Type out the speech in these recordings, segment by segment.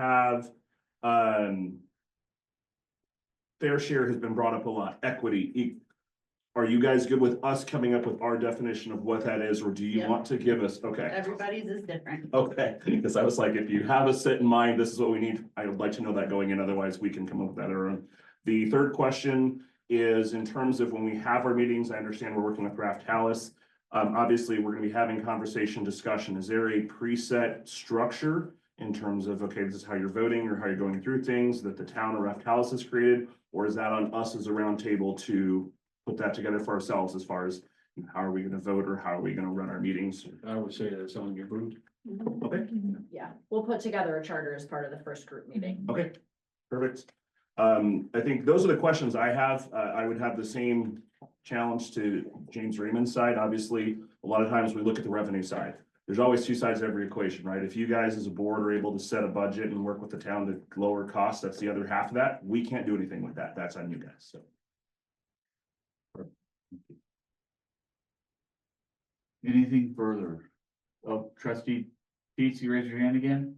have, um. Fair share has been brought up a lot, equity. E- Are you guys good with us coming up with our definition of what that is, or do you Yeah. want to give us, okay? Everybody's is different. Oh. Okay, because I was like, if you have a set in mind, this is what we need, I would like to know that going in, otherwise we can come up with that error. The third question is in terms of when we have our meetings, I understand we're working with Raft Hallis. Um, obviously, we're gonna be having conversation, discussion. Is there a preset structure? In terms of, okay, this is how you're voting or how you're going through things that the town or Raft Hallis has created? Or is that on us as a roundtable to put that together for ourselves as far as you know, how are we gonna vote or how are we gonna run our meetings? I would say that's on your group. Okay. Yeah, we'll put together a charter as part of the first group meeting. Okay, perfect. Um, I think those are the questions I have. Uh, I would have the same challenge to James Raymond's side. Obviously, a lot of times we look at the revenue side. There's always two sides to every equation, right? If you guys as a board are able to set a budget and work with the town to lower costs, that's the other half of that. We can't do anything with that. That's on you guys, so. Anything further? Oh, trustee Pete, you raise your hand again?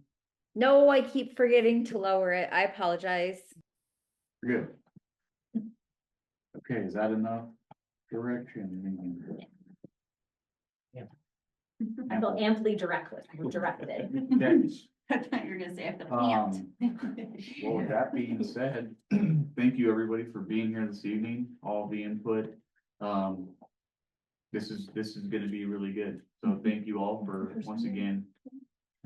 No, I keep forgetting to lower it. I apologize. Good. Okay, is that enough direction? Mm-hmm. I feel amply directed, directed. Thanks. I thought you were gonna say I feel amped. Um, Well, with that being said, thank you, everybody, for being here this evening, all the input. Um, this is, this is gonna be really good, so thank you all for, once again,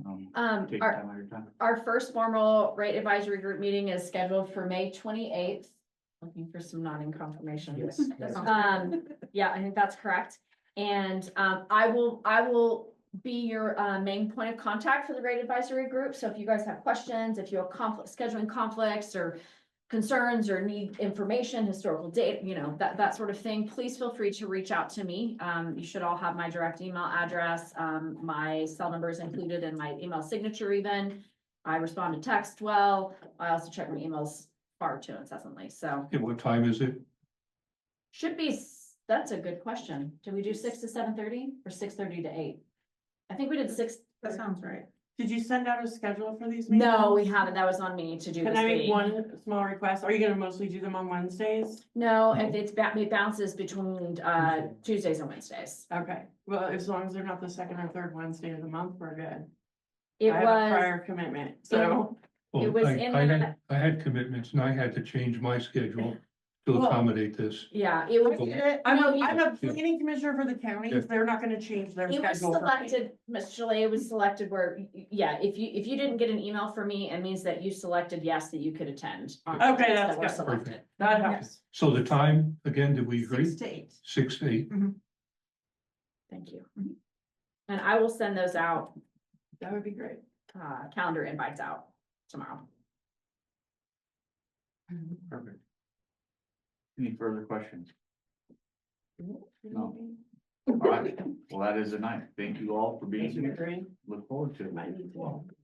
um, Um, taking our, time out of your time. our first formal rate advisory group meeting is scheduled for May twenty-eighth. Looking for some nodding confirmation. Yes. That sounds Um, yeah, I think that's correct. And, um, I will, I will be your, uh, main point of contact for the rate advisory group. So if you guys have questions, if you have conflict, scheduling conflicts or concerns or need information, historical data, you know, that, that sort of thing, please feel free to reach out to me. Um, you should all have my direct email address. Um, my cell number is included in my email signature even. I respond to text well. I also check my emails far too incessantly, so. And what time is it? Should be, s- that's a good question. Do we do six to seven thirty or six thirty to eight? I think we did six. That sounds right. Did you send out a schedule for these? meetings? No, we haven't. That was on me to do Can this I make week. one small request? Are you gonna mostly do them on Wednesdays? No, and it's, ba- it bounces between, uh, Tuesdays and Wednesdays. Okay, well, as long as they're not the second or third Wednesday of the month, we're good. It I have a was, Prior commitment, so. It Well, was Oh, I, in I the- had, I had commitments and I had to change my schedule to Well- accommodate this. yeah, it was, I'm No, a, you- I'm a planning commissioner for the county. They're not gonna change their it was schedule. for me. selected, Ms. Shalay, it was selected where, y- y- yeah, if you, if you didn't get an email from me, it means that you selected yes, that you could attend. on the Okay, days that's that were good. selected. That helps. So the time, again, did we agree? Six to eight. Six, to eight, Thank you. And I will send those out That would be great. uh, calendar invites out tomorrow. Perfect. Any further questions? No. All right, well, that is a night. Thank you all for being here. Agree. Look forward to it. Might need to.